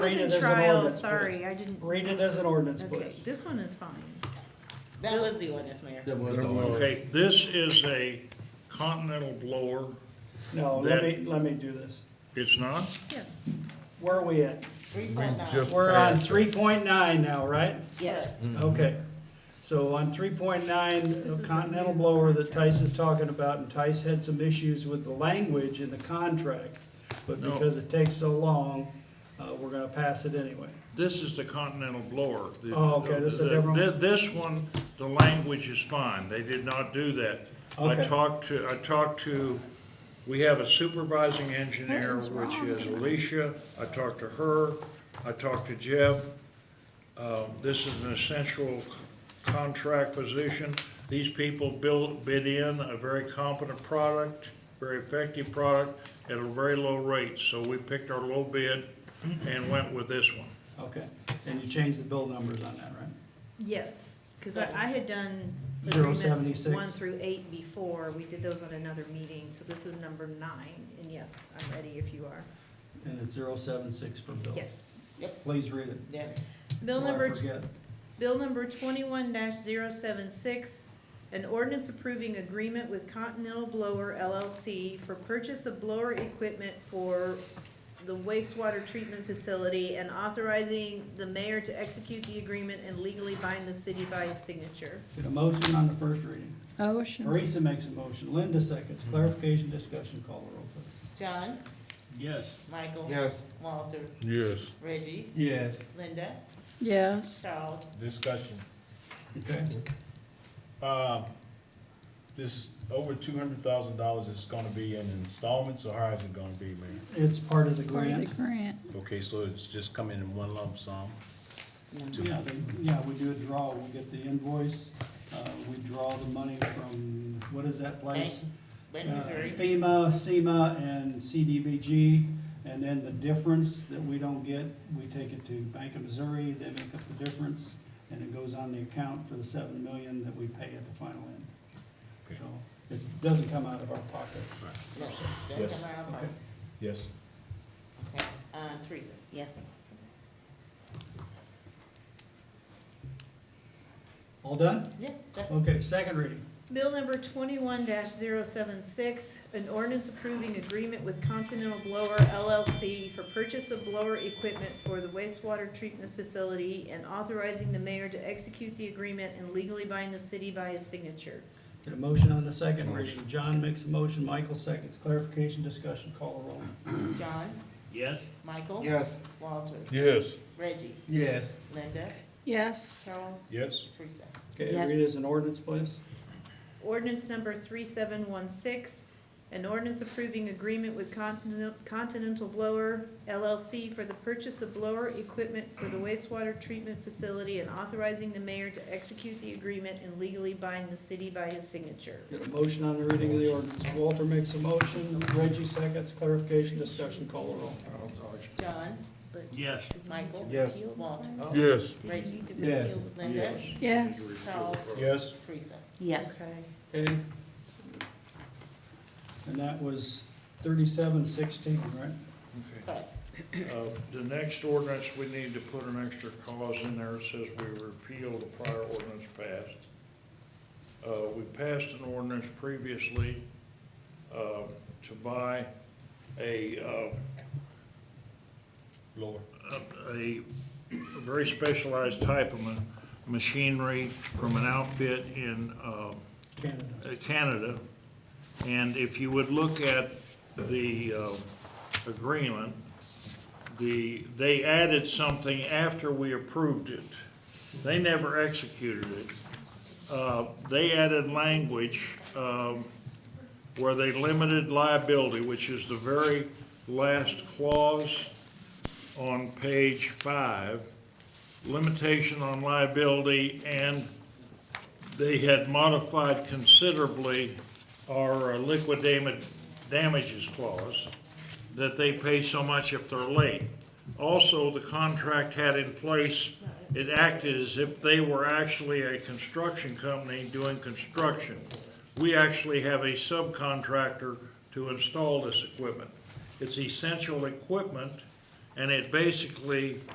Read was it in as an trial, ordinance, sorry, please. I didn't, Read it as an ordinance, okay, please. this one is fine. That was the ordinance, Mayor. That was the one. Okay, this is a continental blower. No, let That- me, let me do this. It's not? Yes, Where are we at? Three point nine. just- We're on three point nine now, right? Yes. Mm-hmm. Okay. So on three point nine, This is a Continental new blower that contract. Tice is talking about, and Tice had some issues with the language in the contract. But No. because it takes so long, uh, we're gonna pass it anyway. This is the continental blower. The- Oh, okay, this is a the- different one? thi- This one, the language is fine, they did not do that. I Okay. talked to, I talked to, we have a supervising engineer, which is Alicia, I talked to her, I talked to Jeff. Uh, This is an essential contract position. These people built, bid in a very competent product, very effective product at a very low rate. So we picked our low bid and went with this one. Okay. And you changed the bill numbers on that, right? yes, because I, I had done Zero agreements 76. one through eight before, we did those on another meeting, so this is number nine, and yes, I'm ready if you are, And it's zero seven six for bill. yes. Please read it. Yeah. Bill before I number forget. Bill number twenty-one 76 an ordinance approving agreement with Continental Blower LLC for purchase of blower equipment for the wastewater treatment facility and authorizing the mayor to execute the agreement and legally bind the city by his signature. Get a motion on the first reading. Motion. Marisa makes a motion. Linda seconds. Clarification, discussion, call the roll, please. John, Yes. Michael. Yes. Walter, Yes. Reggie, Yes. Linda, Yes. Charles. Discussion. Okay. Uh, This over two hundred thousand dollars is gonna be in installments, or how is it gonna be, Mayor? It's part of the Part of grant. the grant. Okay, so it's just coming in one lump sum? Two- Yeah, they- yeah, we do a draw, we get the invoice, uh, we draw the money from, what is that place? Wait, Uh, Missouri. FEMA, SEMA, and CDBG, and then the difference that we don't get, we take it to Bank of Missouri, they make up the difference, and it goes on the account for the seven million that we pay at the final end. So, it doesn't come out of our pocket. No, that's Yes. a loud one. Yes. Okay, Uh, Teresa. Yes. All done? Yeah, second. Okay, second reading. Bill number twenty-one 76 an ordinance approving agreement with Continental Blower LLC for purchase of blower equipment for the wastewater treatment facility and authorizing the mayor to execute the agreement and legally bind the city by his signature. Get a motion on the second reading. John makes a motion, Michael seconds. Clarification, discussion, call the roll. John, Yes. Michael. Yes. Walter, Yes. Reggie, Yes. Linda, Yes. Charles, Yes? Teresa. Okay, Yes. read it as an ordinance, please. Ordinance number three seven one six, an ordinance approving agreement with Continen- Continental Blower LLC for the purchase of blower equipment for the wastewater treatment facility and authorizing the mayor to execute the agreement and legally bind the city by his signature. Get a motion on the reading of the ordinance. Walter makes a motion, Reggie seconds. Clarification, discussion, call the roll. John, Yes. Michael. Yes. Walter, Yes. Reggie, Yes. Linda, Yes. Charles, Yes? Teresa. Yes. Okay? And that was thirty-seven sixteen, right? Correct. Uh, The next ordinance, we need to put an extra clause in there that says we repeal the prior ordinance passed. Uh, We passed an ordinance previously uh, to buy a, uh, Lower. a- a very specialized type of ma- machinery from an outfit in uh, Canada. uh, Canada. And if you would look at the uh, agreement, the, they added something after we approved it. They never executed it. Uh, They added language um, where they limited liability, which is the very last clause on page five, limitation on liability and they had modified considerably our uh, liquid dam- damages clause, that they pay so much if they're late. Also, the contract had in place, it acted as if they were actually a construction company doing construction. We actually have a subcontractor to install this equipment. It's essential equipment, And it basically